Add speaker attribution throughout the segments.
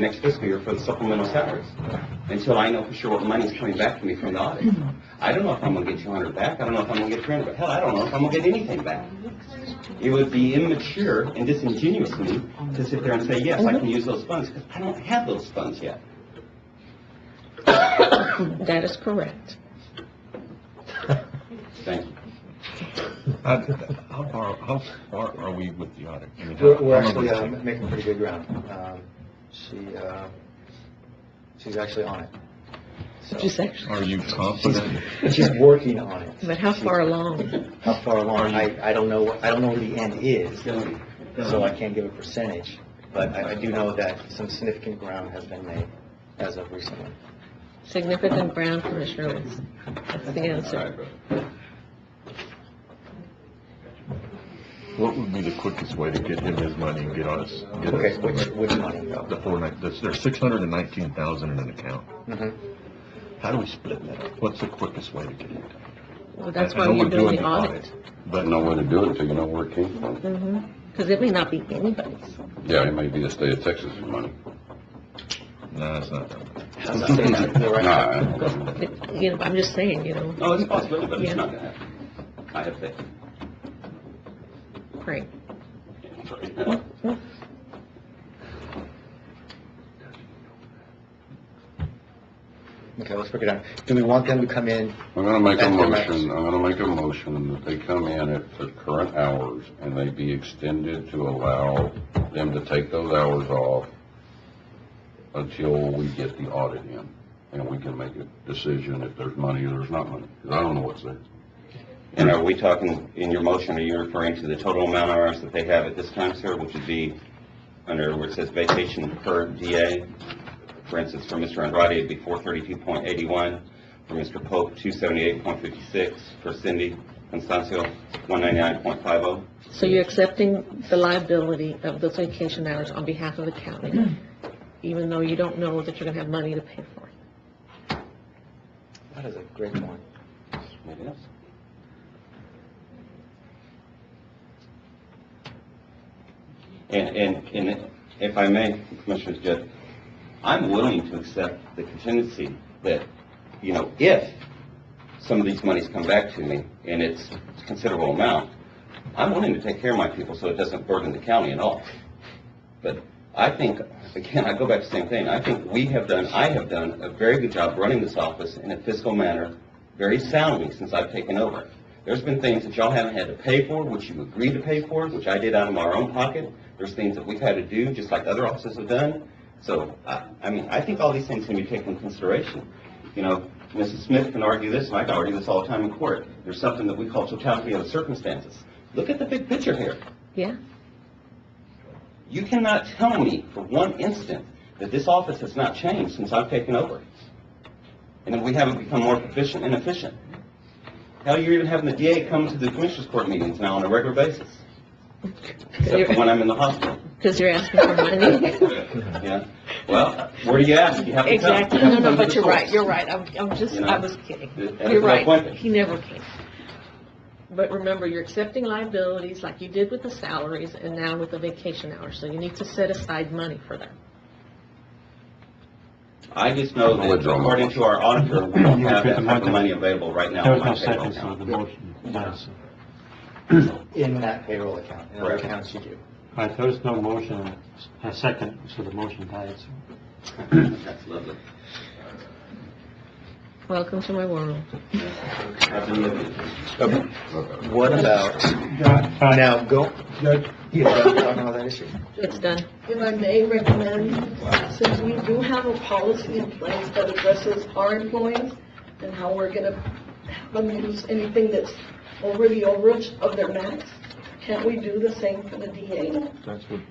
Speaker 1: next fiscal year for the supplemental salaries, until I know for sure what money's coming back to me from the audit. I don't know if I'm gonna get two hundred back, I don't know if I'm gonna get three hundred, hell, I don't know if I'm gonna get anything back. It would be immature and disingenuous of me to sit there and say, yes, I can use those funds, because I don't have those funds yet.
Speaker 2: That is correct.
Speaker 1: Thank you.
Speaker 3: Uh, How far, how far are we with the audit? I mean, how-
Speaker 4: We're, we're
Speaker 3: how
Speaker 4: actually uh,
Speaker 3: long does it
Speaker 4: making pretty good ground. Um, She, uh, she's actually on it. So-
Speaker 2: Just
Speaker 3: take?
Speaker 2: actually,
Speaker 3: Are you confident?
Speaker 4: She's working on it.
Speaker 2: but how far along?
Speaker 4: How far along? I, I don't know, what- I don't know what the end is,
Speaker 1: Dylan,
Speaker 4: so I can't give a percentage, but I, I do know that some significant ground has been made as of recently.
Speaker 2: Significant ground, Commissioner Lewis. That's the answer.
Speaker 3: What would be the quickest way to get him his money and get us, get
Speaker 4: Okay,
Speaker 3: us the
Speaker 4: which,
Speaker 3: rest?
Speaker 4: which money though?
Speaker 3: The four nine, there's, there's six hundred and nineteen thousand in an account.
Speaker 4: Mhm.
Speaker 3: How do we split that up? What's the quickest way to get it?
Speaker 2: Well, that's
Speaker 3: I- I
Speaker 2: why
Speaker 3: know
Speaker 2: we're doing
Speaker 3: the
Speaker 2: the audit.
Speaker 3: But
Speaker 5: No way to do it until you know where it came from.
Speaker 2: Because it may not be anybody's.
Speaker 5: Yeah, it may be the state of Texas money.
Speaker 3: No, it's not that much.
Speaker 4: That's not saying that's the right-
Speaker 5: Nah,
Speaker 2: It- You know, I'm just saying, you know,
Speaker 1: No, it's possible, but it's
Speaker 2: Yeah.
Speaker 1: not gonna happen. I have faith.
Speaker 2: great.
Speaker 4: Okay, let's break it down. Do we want them to come in?
Speaker 5: I'm gonna make a
Speaker 4: That's correct.
Speaker 5: motion, I'm gonna make a motion that they come in at the current hours and they be extended to allow them to take those hours off until we get the audit in and we can make a decision if there's money or there's not money, 'cause I don't know what's there.
Speaker 1: And are we talking, in your motion, are you referring to the total amount of hours that they have at this time, sir, which would be under where it says vacation per DA? For instance, for Mr. Andrade, it'd be four thirty-two point eighty-one, for Mr. Pope, two seventy-eight point fifty-six, for Cindy Constancio, one ninety-nine point five oh.
Speaker 2: So you're accepting the liability of those vacation hours on behalf of the county, even though you don't know that you're going to have money to pay for it.
Speaker 4: That is a great one.
Speaker 1: And, and, and if I may, Commissioners Judge, I'm willing to accept the contingency that, you know, if some of these monies come back to me, and it's a considerable amount, I'm willing to take care of my people so it doesn't burden the county at all. But I think, again, I go back to the same thing, I think we have done, I have done a very good job running this office in a fiscal manner, very soundly since I've taken over. There's been things that y'all haven't had to pay for, which you agreed to pay for, which I did out of our own pocket. There's things that we've had to do, just like other offices have done. So, I, I mean, I think all these things can be taken into consideration. You know, Mrs. Smith can argue this, and I can argue this all the time in court. There's something that we call totality of the circumstances. Look at the big picture here.
Speaker 2: Yeah?
Speaker 1: You cannot tell me for one instant that this office has not changed since I've taken over. And that we haven't become more proficient and efficient. Hell, you're even having the DA come to the commissioners court meetings now on a regular basis, except for when I'm in the hospital.
Speaker 2: Because you're asking for money.
Speaker 1: Yeah, well, where do you ask? You have to come.
Speaker 2: Exactly.
Speaker 1: You have
Speaker 2: No,
Speaker 1: to come
Speaker 2: no,
Speaker 1: to
Speaker 2: but
Speaker 1: the
Speaker 2: you're right,
Speaker 1: source.
Speaker 2: you're right. I'm, I'm just,
Speaker 1: You know?
Speaker 2: I was kidding.
Speaker 1: And that's
Speaker 2: You're
Speaker 1: my point.
Speaker 2: right. He never came. But remember, you're accepting liabilities like you did with the salaries and now with the vacation hours. So you need to set aside money for that.
Speaker 1: I just know
Speaker 5: I'll
Speaker 1: that
Speaker 5: withdraw my
Speaker 1: according to our auditor, we don't have that type of money available right now on
Speaker 6: There was no
Speaker 1: my payroll
Speaker 6: second, so
Speaker 1: account.
Speaker 6: the motion dies.
Speaker 4: In that payroll account, in other
Speaker 1: Correct.
Speaker 4: accounts you do.
Speaker 6: All right, there was no motion, a second, so the motion dies.
Speaker 1: That's lovely.
Speaker 2: Welcome to my world.
Speaker 1: I've been living it.
Speaker 4: Okay. What about, now, go, you guys are talking about that issue?
Speaker 2: It's done.
Speaker 7: If I may recommend, since we do have a policy in place that addresses our employees and how we're gonna have them use anything that's over the overage of their max, can't we do the same for the DA?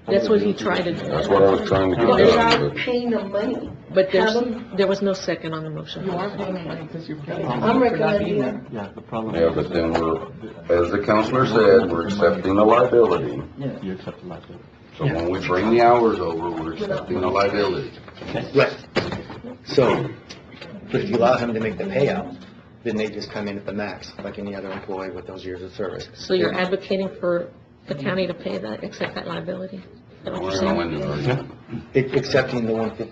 Speaker 2: That's what he tried to
Speaker 5: That's what I
Speaker 2: do.
Speaker 5: was trying to get
Speaker 7: But
Speaker 5: done.
Speaker 7: without
Speaker 5: but-
Speaker 7: paying them money.
Speaker 2: But there's,
Speaker 7: Have them-
Speaker 2: there was no second on the motion.
Speaker 7: I'm recommending that.
Speaker 6: Yeah, the problem.
Speaker 5: Yeah, but then we're, as the counselor said, we're accepting the liability.
Speaker 6: You accept the liability.
Speaker 5: So when we bring the hours over, we're accepting the liability.
Speaker 4: Right. So, but if you allow him to make the payout, then they just come in at the max, like any other employee with those years of service.
Speaker 2: So you're advocating for the county to pay that, accept that liability? Is that what you're
Speaker 5: We're gonna
Speaker 2: saying?
Speaker 5: win this argument.
Speaker 4: Accepting the one fifty